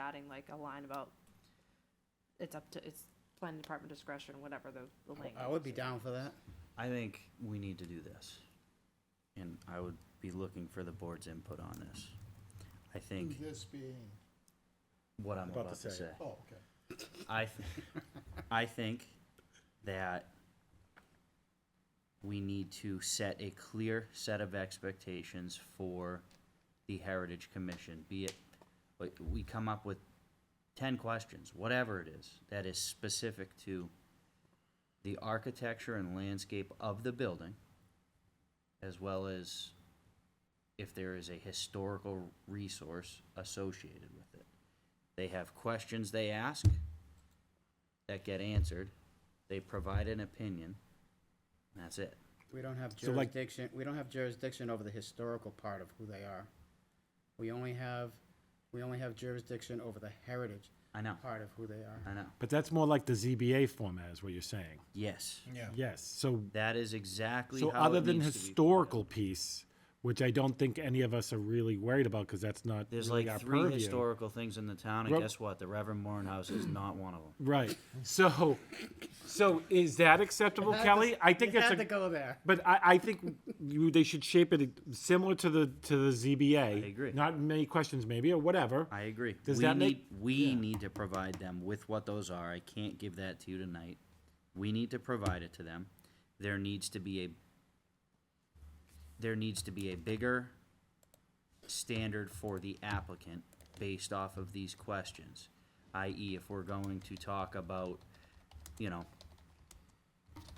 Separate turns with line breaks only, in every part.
having like a line about, it's up to, it's planning department discretion, whatever the, the language.
I would be down for that.
I think we need to do this. And I would be looking for the board's input on this. I think
This being,
what I'm
About to
about
say.
to say.
oh, okay.
I, th- I think that we need to set a clear set of expectations for the Heritage Commission, be it, like, we come up with ten questions, whatever it is, that is specific to the architecture and landscape of the building, as well as if there is a historical resource associated with it. They have questions they ask that get answered. They provide an opinion. and That's it.
We don't have
So, like-
jurisdiction, we don't have jurisdiction over the historical part of who they are. We only have, we only have jurisdiction over the heritage
I know.
part of who they are.
I know.
But that's more like the ZBA format is what you're saying.
Yes,
Yeah.
Yes, so,
that is exactly
so
how
other
it
than
needs to be
historical
put
piece, which I don't think any of us are really worried about because that's not
out. There's
really
like
our
three
purview.
historical things in the town, and
Well-
guess what? The Reverend Morehouse is not one of them.
Right. So, so is that acceptable, Kelly? I think
You
it's
had to
a.
go there.
But I, I think you, they should shape it similar to the to the ZBA.
I agree.
Not many questions, maybe or whatever.
I agree.
Does
we
that
need,
make-
we need to provide them with what those are. I can't give that to you tonight. We need to provide it to them. There needs to be a there needs to be a bigger standard for the applicant based off of these questions. I.e., if we're going to talk about, you know,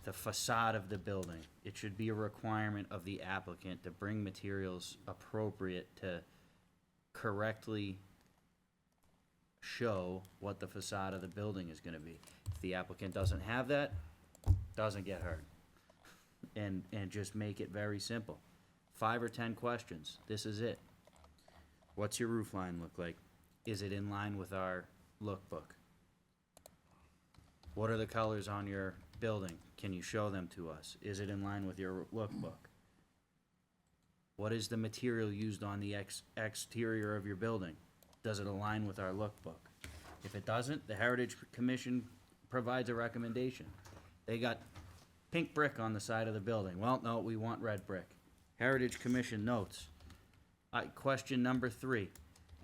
the facade of the building, it should be a requirement of the applicant to bring materials appropriate to correctly show what the facade of the building is gonna be. If the applicant doesn't have that, doesn't get heard. And, and just make it very simple. Five or ten questions, this is it. What's your roof line look like? Is it in line with our lookbook? What are the colors on your building? Can you show them to us? Is it in line with your lookbook? What is the material used on the ex- exterior of your building? Does it align with our lookbook? If it doesn't, the Heritage Commission provides a recommendation. They got pink brick on the side of the building. Well, no, we want red brick. Heritage Commission notes. Uh, question number three,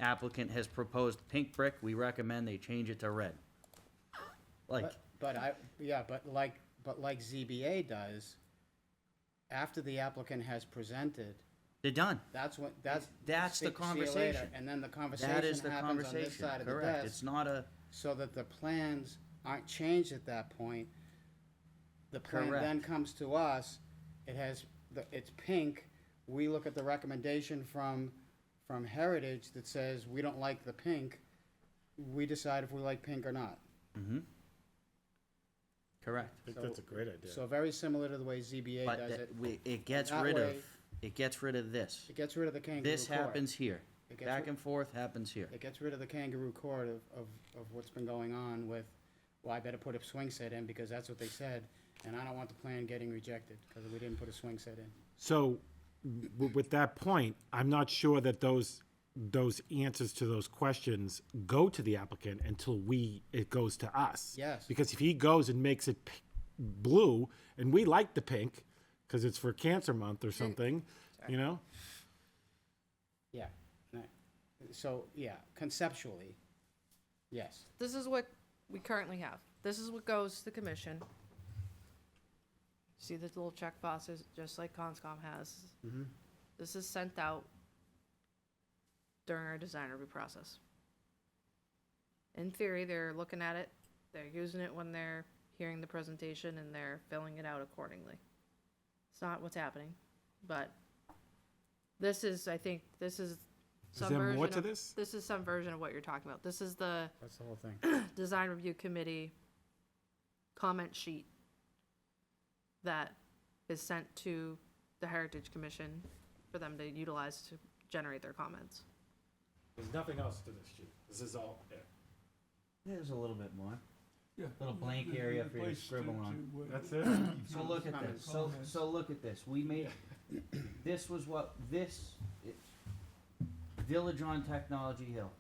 applicant has proposed pink brick. We recommend they change it to red. Like,
But, but I, yeah, but like, but like ZBA does, after the applicant has presented,
they're done.
that's when, that's.
That's
see- see
the
you later,
conversation.
And then the
That is
conversation
the
happens on this
conversation,
side of the
correct.
desk,
It's not a,
so that the plans aren't changed at that point. The plan then
Correct.
comes to us, it has, the it's pink, we look at the recommendation from, from Heritage that says, we don't like the pink, we decide if we like pink or not.
correct.
that's a great idea.
So very similar to the way ZBA
But
does
that-
it.
we, it gets
That
rid of,
way-
it gets rid of this.
It gets rid of the kangaroo court.
This happens here.
It gets
Back
rid-
and forth happens here.
It gets rid of the kangaroo court of, of, of what's been going on with, well, I better put a swing set in because that's what they said, and I don't want the plan getting rejected because we didn't put a swing set in.
So, w- with that point, I'm not sure that those, those answers to those questions go to the applicant until we, it goes to us.
Yes.
Because if he goes and makes it p- blue, and we like the pink, because it's for cancer month or something, you know?
Yeah. no. So, yeah, conceptually, yes.
This is what we currently have. This is what goes to the commission. See the little check boxes, just like Conscom has.
Mm-hmm.
This is sent out during our design review process. In theory, they're looking at it, they're using it when they're hearing the presentation, and they're filling it out accordingly. It's not what's happening, but this is, I think, this is some
there more
version
to
of-
this?
This is some version of what you're talking about. This is the
That's the whole thing.
design review committee comment sheet that is sent to the Heritage Commission for them to utilize to generate their comments.
There's nothing else to this sheet. This is all it.
There's a little bit more.
Yeah.
Little blank area for you to scribble on.
That's it?
So look at this, so, so look at this, we made, this was what, this, it- Village on Technology Hill,